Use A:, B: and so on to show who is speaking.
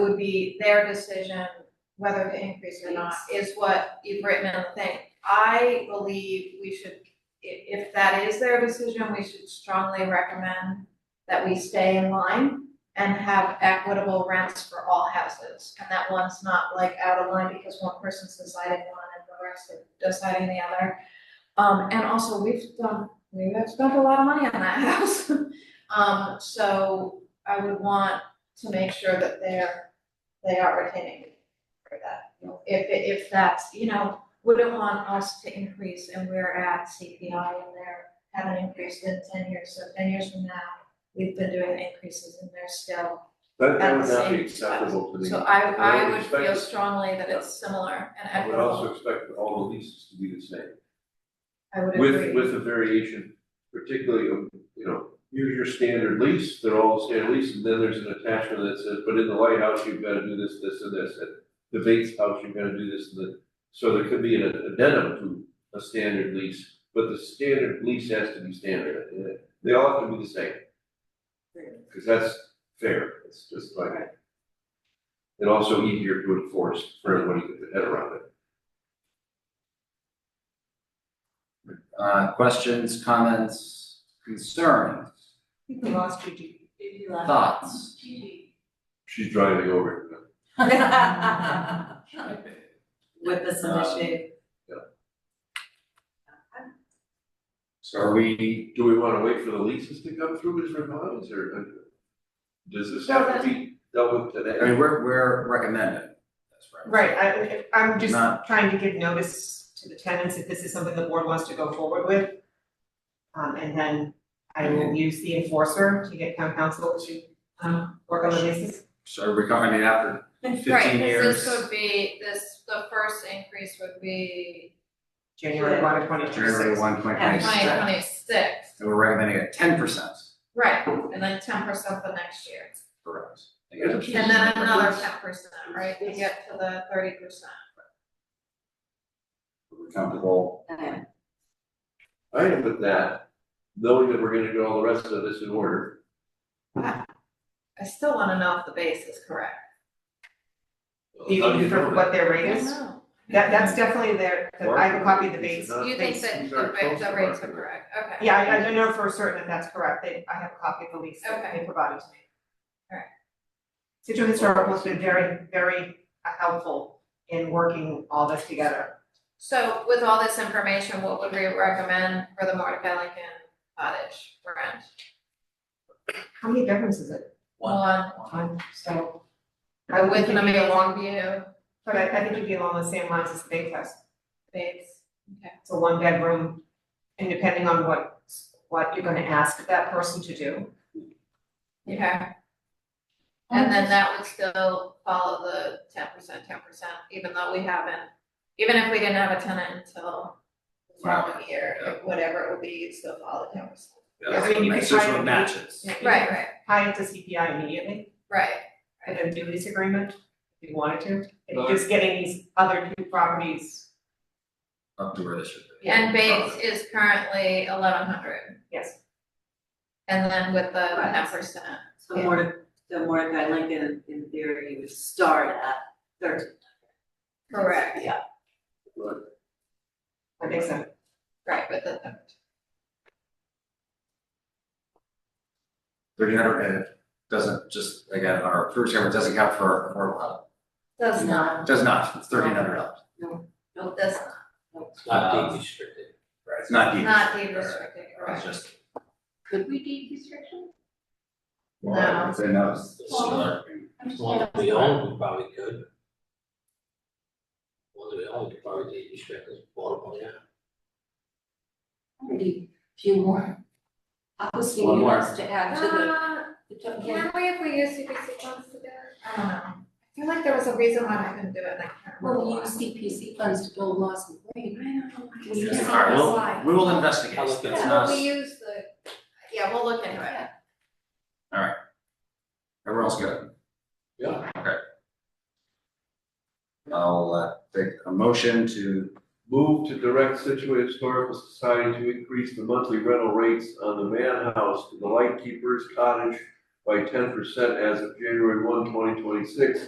A: would be their decision whether to increase or not, is what you've written in the thing. I believe we should, i- if that is their decision, we should strongly recommend that we stay in line and have equitable rents for all houses. And that one's not like out of line because one person's deciding one and the rest are deciding the other. Um, and also, we've done, we have spent a lot of money on that house. Um, so I would want to make sure that they're, they are retaining for that. If, if that's, you know, wouldn't want us to increase and we're at CPI and they're, haven't increased in ten years, so ten years from now, we've been doing increases and they're still.
B: That, that
A: At
B: would
A: the
B: not be
A: same
B: acceptable to the.
A: So I, I
B: would
A: would
B: expect
A: feel
B: it-
A: strongly that it's similar and
B: I would
A: equitable,
B: also expect all the leases to be the same,
A: I would agree.
B: with, with a variation, particularly, of, you know, here's your standard lease, they're all standard lease, and then there's an attachment that says, but in the lighthouse, you've gotta do this, this, and this, and the Bates house, you've gotta do this, and that. So there could be an addendum to a standard lease, but the standard lease has to be standard, and they all have to be the same. Cause that's fair, it's just like. And also easier to enforce for everyone to get their head around it.
C: Uh, questions, comments, concerns,
D: think we lost Gigi. Gigi
C: thoughts?
B: She's driving over.
D: With this
C: Um,
D: initiative.
C: So are we,
B: Do we wanna wait for the leases to come through as revised, or uh, does this have to be dealt with
C: I mean,
B: today?
C: we're, we're recommending. That's
D: Right, I, I'm just
C: Not-
D: trying to give notice to the tenants if this is something the board wants to go forward with. Um, and then I will use the enforcer to get town council to, um, work on the leases.
C: So we're coming in after fifteen
A: Right, 'cause
C: years.
A: this would be, this, the first increase would be
D: January one of twenty
C: January
D: twenty-six.
C: one, twenty
A: twenty
C: twenty six.
A: twenty-six,
C: And we're recommending a ten percent.
A: right, and then ten percent the next year.
C: Correct.
A: And then another ten percent, right, to get to the thirty percent.
C: We're Comfortable.
B: I am with that, knowing that we're gonna do all the rest of this in order.
A: I still wanna know if the base is correct.
D: Do you
B: How do
D: mean
B: know
D: for
B: that?
D: what their rate is?
A: know.
D: That, that's definitely their, the- I can copy the
B: Market rates
D: base.
B: is not-
A: You think that
B: These
A: the
B: are
A: ra-
B: close to
A: the rates are
B: market rate.
A: correct, okay.
D: Yeah, I, I don't know for certain if that's correct, they, I have a copy of the lease that
A: Okay.
D: they provided to me.
A: Alright.
D: Situate Historical has been very, very helpful in working all this together.
A: So with all this information, what would we recommend for the Mordecai Lincoln cottage rent?
D: How many bedrooms is it?
A: One,
D: One, so. I would
A: with
D: think
A: an
D: it'd be along,
A: amazing view,
D: but I, I think it'd be along the same lines as the Big Fest,
A: base,
D: it's a one bedroom. And depending on what, what you're gonna ask that person to do,
A: okay? And then that would still follow the ten percent, ten percent, even though we haven't, even if we didn't have a tenant until the following year,
C: Yeah.
A: whatever it would be, it'd still follow ten percent.
D: I mean, you could
C: This is
D: try
C: what
D: and-
C: matches.
D: Yeah.
A: Right, right,
D: tie it to CPI immediately.
A: right.
D: and then do lease agreement if you wanted to. It's
B: Right.
D: just getting these other two properties,
C: Up to where this should be.
A: And Bates is currently eleven hundred,
D: yes.
A: and then with the
E: Right.
A: ten percent,
E: So more, the Mordecai Lincoln in theory would start at thirteen.
A: correct,
E: Yeah.
D: That makes sense.
A: right, with the ten
C: Thirteen hundred, and it doesn't just, again, on our first camera, it doesn't count for affordable housing.
A: Does not,
C: Does not, it's thirteen hundred dollars.
A: no, does not.
C: Not deed
F: restricted.
C: Right. It's not deed.
A: Not deed
C: Right.
A: restricted,
C: It's
A: correct.
C: just.
E: Could we deed restriction?
C: Well, I would say no, it's
F: The
C: similar.
F: One that we own, we probably could. One that we own, we probably did restricted, bought upon that.
E: Maybe a few more. Housing
C: One more.
E: units to add to the,
A: Uh,
E: the total.
A: Can we, if we use CPC funds to do it? I don't know. I feel like there was a reason why I couldn't do it, and I can't remember
E: Well, we
A: why.
E: use CPC funds to build Lawson Lane.
A: We
C: Yeah.
A: use
C: All right, well,
A: the-
C: We will investigate,
F: I'll
C: it's
F: look at it.
A: Yeah,
C: not,
A: we use the, yeah, we'll look into it.
C: everyone else good?
F: Yeah.
C: Okay. I'll uh, take a motion to,
B: Move to direct Situate Historical Society to increase the monthly rental rates on the man house to the lightkeeper's cottage by ten percent as of January 1, 2026,